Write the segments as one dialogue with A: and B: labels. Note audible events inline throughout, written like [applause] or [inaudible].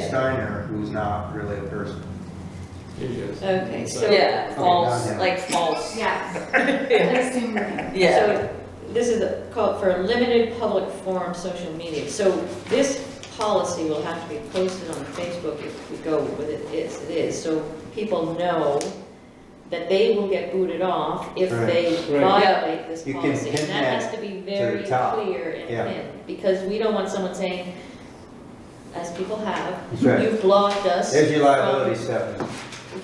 A: Steiner who's not really a person.
B: It is.
C: Okay, so
D: Yeah, false,
A: Okay, now, now.
D: like
A: [laughs]
D: false.
C: Yes, I
D: Yeah.
C: assume that.
D: Yeah.
C: So This is a- called for limited public forum social media. So this policy will have to be posted on Facebook if we go with it, as it is. So people know that they will get booted off if they
B: Right. Right.
C: violate this
A: You can
C: policy. And
A: pin
C: that
A: that
C: has to be
A: the
C: very
A: top.
C: clear and
A: Yeah.
C: pinned. Because we don't want someone saying, as people have,
A: That's right.
C: you've blocked us.
A: There's your
C: from-
A: liability, Stephanie.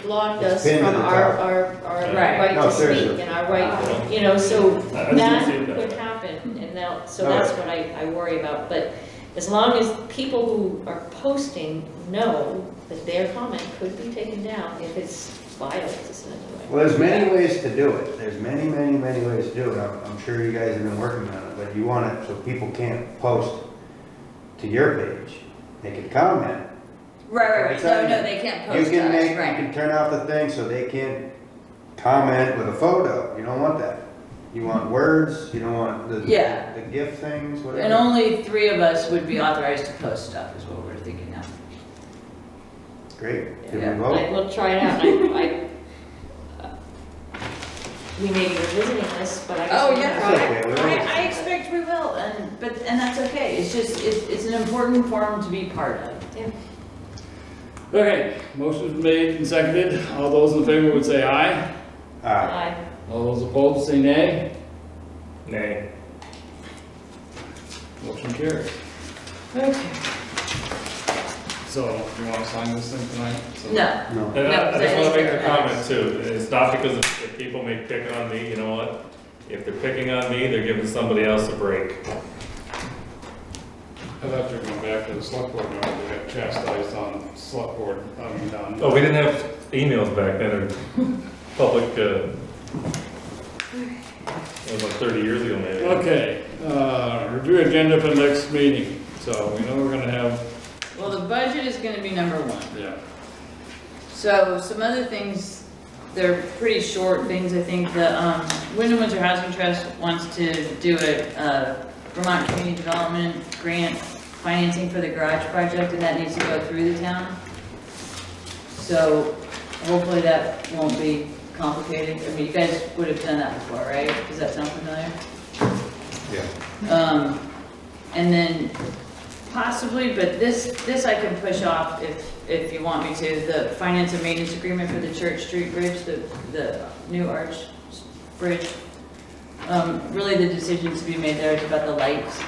C: blocked
A: It's
C: us
A: pinned to
C: from
A: the
C: our,
A: top.
C: our, our
D: Right.
C: right
A: No,
C: to speak
A: seriously.
C: and our right, you know, so
B: I- I didn't
C: that
B: see it that
C: could
B: way.
C: happen, and now, so
A: No.
C: that's what I, I worry about, but as long as people who are posting know that their comment could be taken down if it's violent, essentially.
A: Well, there's many ways to do it. There's many, many, many ways to do it. I'm, I'm sure you guys have been working on it, but you want it so people can't post to your page. They can comment.
D: Right, right,
A: It's
D: right. No,
A: on
D: no,
A: you.
D: they can't
A: You
D: post
A: can make,
D: us,
A: you
D: right.
A: can turn off the thing so they can't comment with a photo. You don't want that. You want words, you don't want the,
D: Yeah.
A: the gift things, whatever.
D: And only three of us would be authorized to post stuff, is what we're thinking now.
A: Great. Did
D: Yeah.
A: we
C: Like,
A: vote?
C: we'll try it out, and I, I- we may be revisiting this, but I guess.
D: Oh,
C: we
D: yeah.
C: can
A: That's
C: try it.
A: okay, we
D: I,
A: will.
D: I expect we will, and, but, and that's okay, it's just, it's, it's an important forum to be part of.
B: Okay, motion's made and seconded. All those in favor would say aye.
A: Aye.
C: Aye.
B: All those opposed say nay.
E: Nay.
B: Motion carries.
D: Okay.
B: So, you wanna sign this thing tonight? So-
D: No,
A: No.
E: And Uh, I I just wanna make
D: No,
E: a
D: that
E: comment too, it's not because if if people may pick on me, you know what? If they're picking on me, they're giving somebody else a break.
F: I'd have to go back to the select board, now we got chastised on select board, I mean, on.
E: Oh, we didn't have emails back then, or public, uh, it was like thirty years ago maybe.
B: Okay, uh, review agenda for next meeting. So we know we're gonna have,
D: well, the budget is gonna be number one.
B: yeah.
D: So some other things, they're pretty short things, I think, the, um, Wyndham Winter Housing Trust wants to do a, uh, Vermont Community Development Grant financing for the garage project, and that needs to go through the town. So hopefully that won't be complicated, I mean, you guys would have done that before, right? Does that sound familiar? Yeah. Um, and then Possibly, but this, this I can push off if, if you want me to, the finance and maintenance agreement for the Church Street Bridge, the, the new arch bridge. Um, really the decision to be made there is about the lights,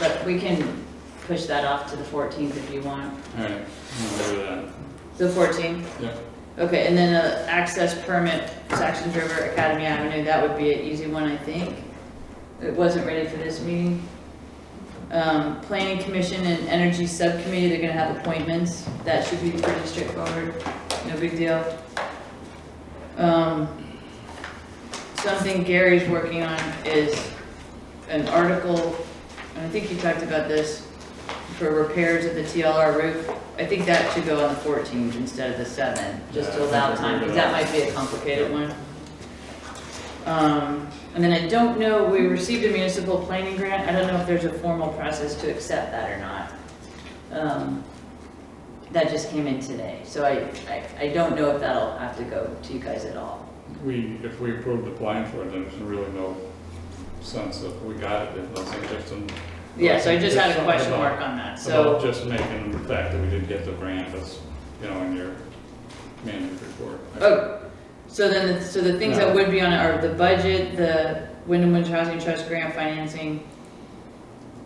D: but we can push that off to the fourteenth if you want.
B: All right, we'll do that.
D: The fourteenth?
B: Yeah.
D: Okay, and then uh, access permit, Saxon River Academy Avenue, that would be an easy one, I think. It wasn't ready for this meeting. Um, Planning Commission and Energy Subcommittee, they're gonna have appointments, that should be pretty straightforward, no big deal. Um, Something Gary's working on is an article, and I think you talked about this, for repairs of the TLR roof. I think that should go on the fourteenth instead of the seventh, just to
B: Yeah, I
D: allow
B: think
D: time,
B: we're
D: because
B: good.
D: that might be a complicated one. Um, and then I don't know, we received a municipal planning grant, I don't know if there's a formal process to accept that or not. Um, that just came in today, so I, I, I don't know if that'll have to go to you guys at all.
F: We, if we approve the plan for it, then there's really no sense of, we got it, it wasn't just an.
D: Yeah, so I just had a
F: Something
D: question
F: about-
D: mark on that, so,
F: About just making the fact that we didn't get the grant, that's, you know, in your management report.
D: oh, so then, the- so the things that
F: No.
D: would be on it are the budget, the Wyndham Winter Housing Trust grant financing,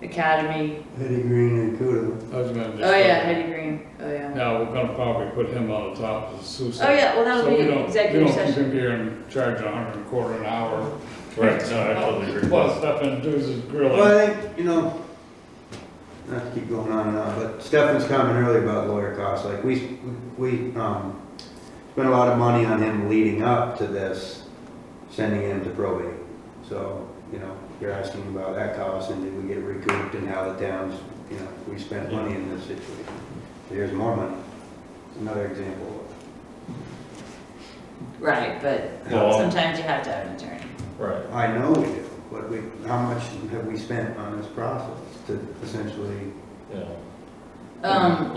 D: academy,
A: Eddie Green and Kudo.
F: I was gonna just.
D: oh yeah, Heidi Green, oh yeah.
F: Now, we're gonna probably put him on the top of the suicide.
D: Oh yeah, well, that'll
F: So we
D: be
F: don't-
D: executive
F: We don't keep him
D: session,
F: here and charge a hundred and a quarter an hour,
E: Right, no, I totally agree.
F: plus Stefan does his grilling.
A: Well, I think, you know, not to keep going on and on, but Stefan's comment earlier about lawyer costs, like, we, we, um, spent a lot of money on him leading up to this, sending him to probate. So, you know, you're asking about that cost, and did we get recouped, and how the towns, you know, we spent money in this situation. Here's more money, another example.
D: right, but
E: Well-
D: sometimes you have to have an attorney.
E: Right.
A: I know we do, but we, how much have we spent on this process to essentially
E: Yeah.
D: Um,